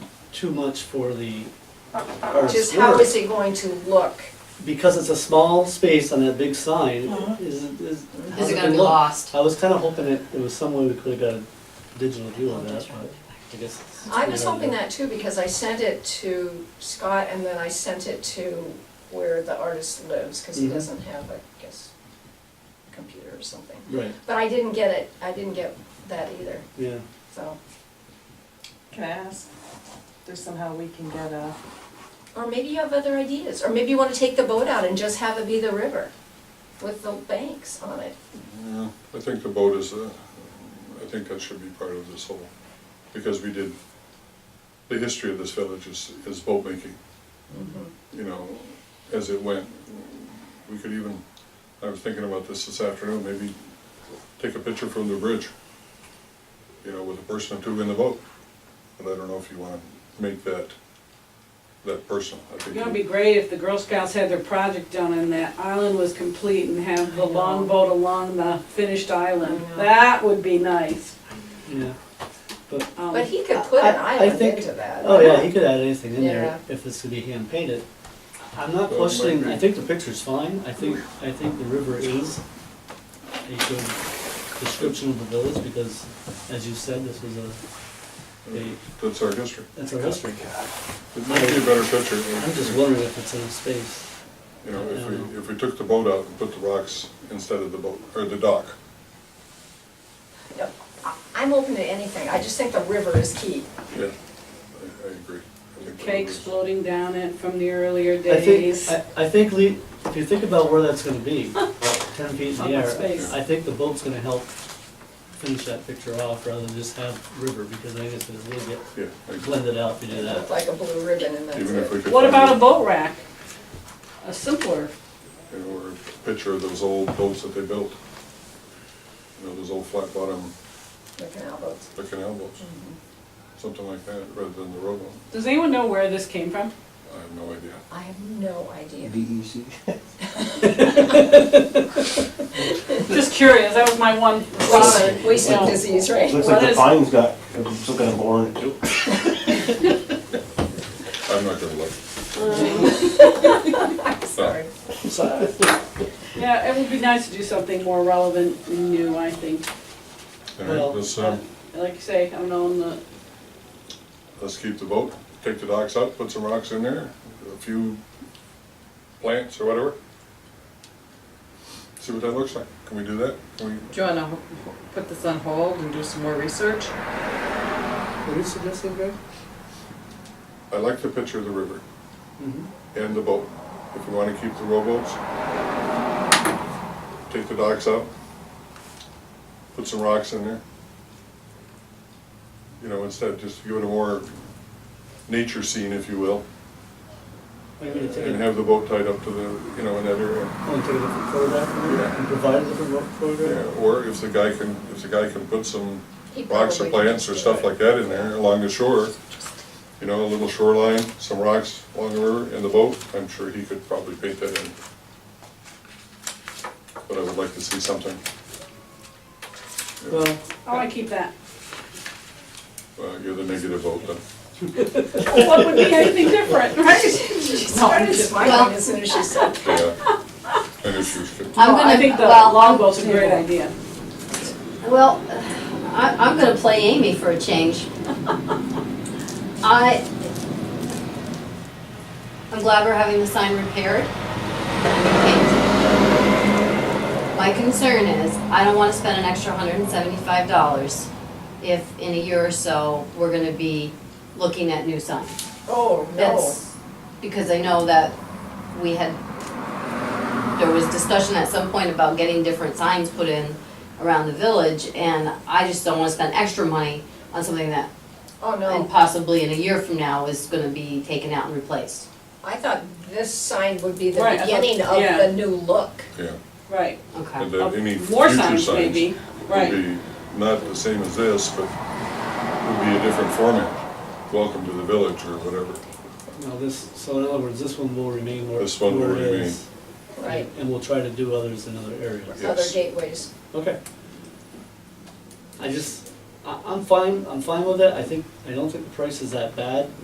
too much for the, our Uh, Just how slur. is it going to look? Because it's a small space on that big sign, Uh-huh. Mhm. is, is. how's Is it gonna gonna be look? lost? I was kinda hoping it, it was some way we could've got a digital view Oh, of that, but I guess. it's- I was hoping that too, because I sent it to Scott and then I sent it to where the artist lives, because he Mhm. doesn't have, I guess, computer or something. Right, But I didn't get it, I didn't get that either, yeah, so, Can I ask, if there's somehow we can get a, or maybe you have other ideas, or maybe you wanna take the boat out and just have it be the river with the banks on it. Yeah, I think the boat is, uh, I think that should be part of this whole, because we did, the history of this village is, is boat making, Mm-hmm. you know, as it went. We could even, I was thinking about this this afternoon, maybe take a picture from the bridge, you know, with a person or two in the boat. But I don't know if you wanna make that, that personal. I It think would be great if the Girl Scouts had their project done and that island was complete and have the longboat along the finished island. I know. That would be nice. yeah. Um, But he could put an I- I island think- into that. Oh, yeah, he could add anything in there Yeah. if this could be hand painted. I'm not Well, it might questioning, I be. think the picture's fine, I think, I think the river is a good description of the village, because as you said, this was a, a, That's our history. that's our history. It might be a better picture. I'm just wondering if it's in space. You know, if we, if we took the boat out and put the rocks instead of the boat, or the dock. No, I- I'm open to anything, I just think the river is key. Yeah, I, I agree. I think that Cakes was- floating down it from the earlier I think, days. I, I think, Lee, if you think about where that's gonna be, ten feet in the Up in air, space. I think the boat's gonna help finish that picture off, rather than just have river, because I think it's gonna really get Yeah, I agree. blended out if you do It that. looked like a blue ribbon and that's Even if it. we could. What find about a boat rack? A simpler, You know, or a picture of those old boats that they built. You know, those old flat bottom, The canal boats. the canal boats, Mm-hmm. something like that, rather than the rowboat. does anyone know where this came from? I have no idea. I have no idea. DEC. Just curious, that was my one Wasted- thought. Wasted disease, right? Looks like What the is- pine's got, some kind of orange. I'm not gonna look. Sorry. So, Yeah, it would be nice to do something more relevant and new, I think. All Well, right, let's, uh, um, Like you say, I don't know, in the let's keep the boat, take the docks out, put some rocks in there, a few plants or whatever. See what that looks like. Can we do that? Can we, Do you wanna ho- ho- put this on hold and do some more research? What are you suggesting, Greg? I like the picture of the river Mm-hmm. Mhm. and the boat. If we wanna keep the rowboats, take the docks out, put some rocks in there. You know, instead, just give it a more nature scene, if you will, Are you gonna take and a, have the boat tied up to the, you know, in that area. want to take a different photograph from it Yeah. and provide a different ro- Yeah, photograph? or if the guy can, if the guy can put some He rocks or probably plants or can stuff do it. like that in there along the shore, you know, a little shoreline, some rocks along the river and the boat, I'm sure he could probably paint that in. But I would like to see something, Well, oh, I want to keep that. uh, you're the negative vote then. What would be anything different, right? She started smiling as soon as she said that. Yeah, and issues could, I'm Well, I gonna, think the well, longboat's a great idea. well, I, I'm gonna play Amy for a change. I, I'm glad we're having the sign repaired. My concern is, I don't wanna spend an extra hundred and seventy-five dollars if in a year or so, we're gonna be looking at new signs. Oh, no. That's because I know that we had, there was discussion at some point about getting different signs put in around the village, and I just don't wanna spend extra money on something that, Oh, and no. possibly in a year from now, is gonna be taken out and replaced. I thought this sign would be the Right, I thought- beginning of yeah. the new look. yeah. Right. Okay. And then any Uh, future More signs signs would maybe, be right. not the same as this, but would be a different format. Welcome to the village or whatever. no, this, so in other words, this one will remain where, This one will where it remain. is. Right. And we'll try to do others in other areas. Yeah. Other Yes. gateways. Okay. I just, I, I'm fine, I'm fine with it, I think, I don't think the price is that bad.